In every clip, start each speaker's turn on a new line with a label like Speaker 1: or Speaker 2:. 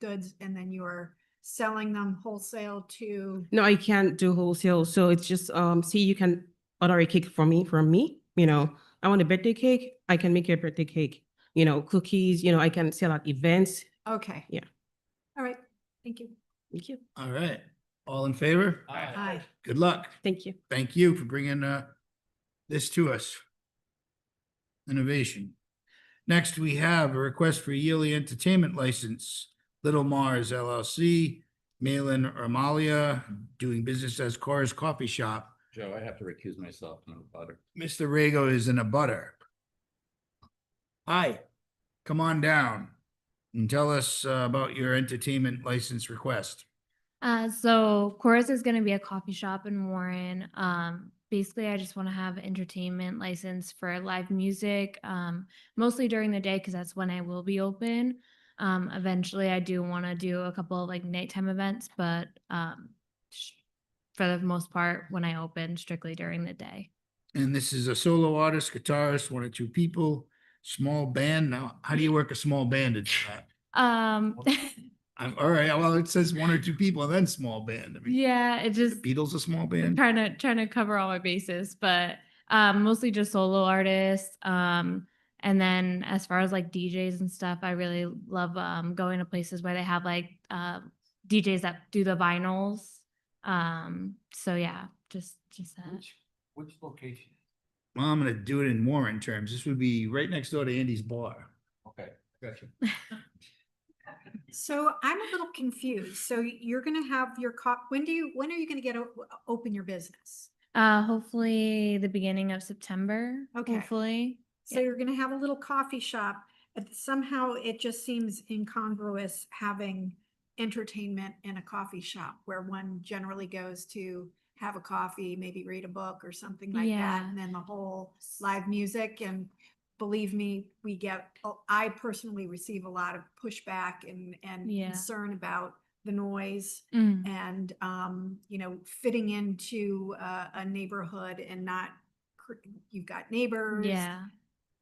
Speaker 1: goods and then you're selling them wholesale to,
Speaker 2: No, I can't do wholesale. So it's just um see you can order a cake for me from me. You know, I want a birthday cake, I can make you a birthday cake. You know, cookies, you know, I can sell at events.
Speaker 1: okay.
Speaker 2: Yeah.
Speaker 1: All right, thank you.
Speaker 2: Thank you.
Speaker 3: All right, all in favor?
Speaker 1: Aye.
Speaker 3: Good luck.
Speaker 2: Thank you.
Speaker 3: Thank you for bringing uh this to us. Innovation. Next, we have a request for yearly entertainment license, Little Mars LLC, Malin Amalia, doing business as Cora's Coffee Shop.
Speaker 4: Joe, I have to recuse myself from the butter.
Speaker 3: Mr. Rego is in a butter. Hi, come on down and tell us uh, about your entertainment license request.
Speaker 5: Uh, so Chorus is going to be a coffee shop in Warren. Um, basically, I just want to have entertainment license for live music, um, mostly during the day because that's when I will be open. Um, eventually, I do want to do a couple of like nighttime events, but um, sh- for the most part, when I open, strictly during the day.
Speaker 3: And this is a solo artist, guitarist, one or two people, small band. Now, how do you work a small band? It's, uh,
Speaker 5: Um,
Speaker 3: I'm, all right, well, it says one or two people and then small band. I mean,
Speaker 5: yeah, it just
Speaker 3: Beatles a small
Speaker 5: I'm
Speaker 3: band?
Speaker 5: trying to trying to cover all my bases, but um, mostly just solo artists. Um, and then as far as like DJs and stuff, I really love um, going to places where they have like uh, DJs that do the vinyls. Um, so yeah, just just that.
Speaker 4: Which, which location?
Speaker 3: Well, I'm gonna do it in Warren terms. This would be right next door to Andy's bar.
Speaker 4: Okay, gotcha.
Speaker 1: So I'm a little confused. So you're gonna have your cop, when do you, when are you gonna get, o- open your business?
Speaker 5: Uh, hopefully the beginning of September.
Speaker 1: Okay.
Speaker 5: Hopefully.
Speaker 1: So
Speaker 5: Yeah.
Speaker 1: you're gonna have a little coffee shop, but somehow it just seems incongruous having entertainment in a coffee shop where one generally goes to have a coffee, maybe read a book or something like that,
Speaker 5: Yeah.
Speaker 1: and then the whole live music and believe me, we get, oh, I personally receive a lot of pushback and, and
Speaker 5: Yeah.
Speaker 1: concern about the noise
Speaker 5: Mm.
Speaker 1: and um, you know, fitting into a, a neighborhood and not cr- you've got neighbors
Speaker 5: Yeah.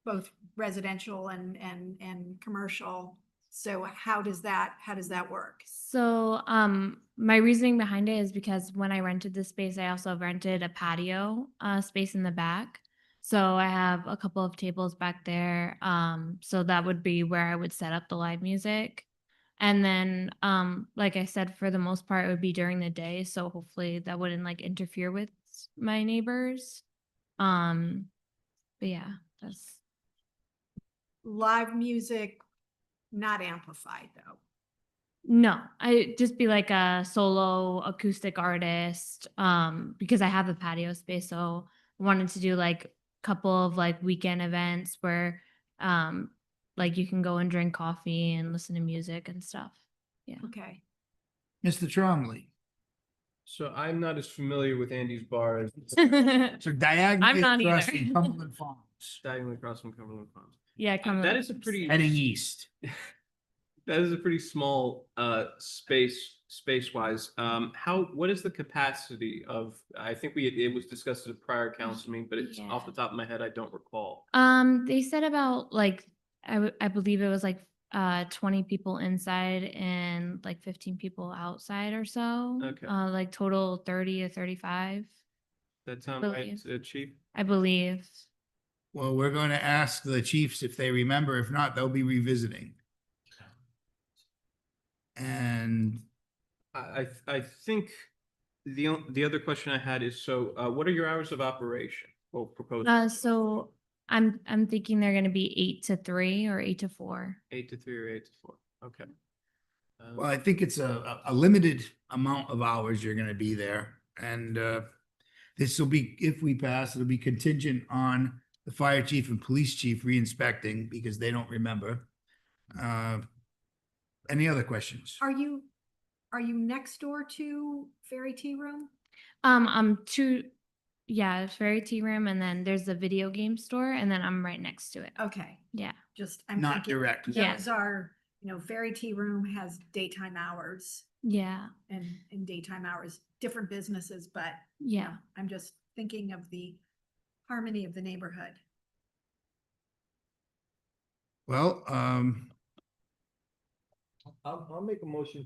Speaker 1: both residential and, and, and commercial. So how does that, how does that work?
Speaker 5: So, um, my reasoning behind it is because when I rented this space, I also rented a patio uh, space in the back. So I have a couple of tables back there. Um, so that would be where I would set up the live music. And then, um, like I said, for the most part, it would be during the day. So hopefully that wouldn't like interfere with my neighbors. Um, but yeah, that's
Speaker 1: Live music, not amplified though.
Speaker 5: No, I just be like a solo acoustic artist um because I have a patio space so I wanted to do like couple of like weekend events where um like you can go and drink coffee and listen to music and stuff.
Speaker 1: Okay.
Speaker 3: Mr. Tromley.
Speaker 6: So I'm not as familiar with Andy's bar as
Speaker 3: So diagonally
Speaker 5: not
Speaker 3: across
Speaker 5: either.
Speaker 3: from Cumberland Farms,
Speaker 6: diving across from Cumberland Farms.
Speaker 5: Yeah, come
Speaker 6: That
Speaker 5: on.
Speaker 6: is a pretty
Speaker 3: heading east.
Speaker 6: that is a pretty small uh space space wise. Um how what is the capacity of I think we it was discussed at a prior council meeting, but it's off the top of my head, I don't recall.
Speaker 5: Um they said about like I w- I believe it was like uh 20 people inside and like 15 people outside or so.
Speaker 6: Okay.
Speaker 5: Uh like total 30 to 35,
Speaker 6: That sound right,
Speaker 5: Believe.
Speaker 6: uh, Chief?
Speaker 5: I believe.
Speaker 3: Well, we're going to ask the chiefs if they remember. If not, they'll be revisiting. And
Speaker 6: I I I think the o- the other question I had is so uh what are your hours of operation? Well proposed
Speaker 5: Uh, so I'm, I'm thinking they're gonna be eight to three or eight to four.
Speaker 6: eight to three or eight to four. Okay. Um,
Speaker 3: Well, I think it's a, a- a limited amount of hours you're gonna be there, and, uh, this will be, if we pass, it'll be contingent on the fire chief and police chief re-inspecting, because they don't remember. Uh, Any other questions?
Speaker 1: Are you, are you next door to Fairy Tea Room?
Speaker 5: Um, I'm two, yeah, it's Fairy Tea Room and then there's the video game store and then I'm right next to it.
Speaker 1: Okay.
Speaker 5: Yeah.
Speaker 1: Just. I'm
Speaker 3: Not
Speaker 1: thinking
Speaker 3: direct.
Speaker 5: Yeah.
Speaker 1: Those are, you know, Fairy Tea Room has daytime hours
Speaker 5: Yeah,
Speaker 1: and, and daytime hours, different businesses, but you know,
Speaker 5: yeah.
Speaker 1: I'm just thinking of the harmony of the neighborhood.
Speaker 3: Well, um,
Speaker 4: I'll, I'll make a motion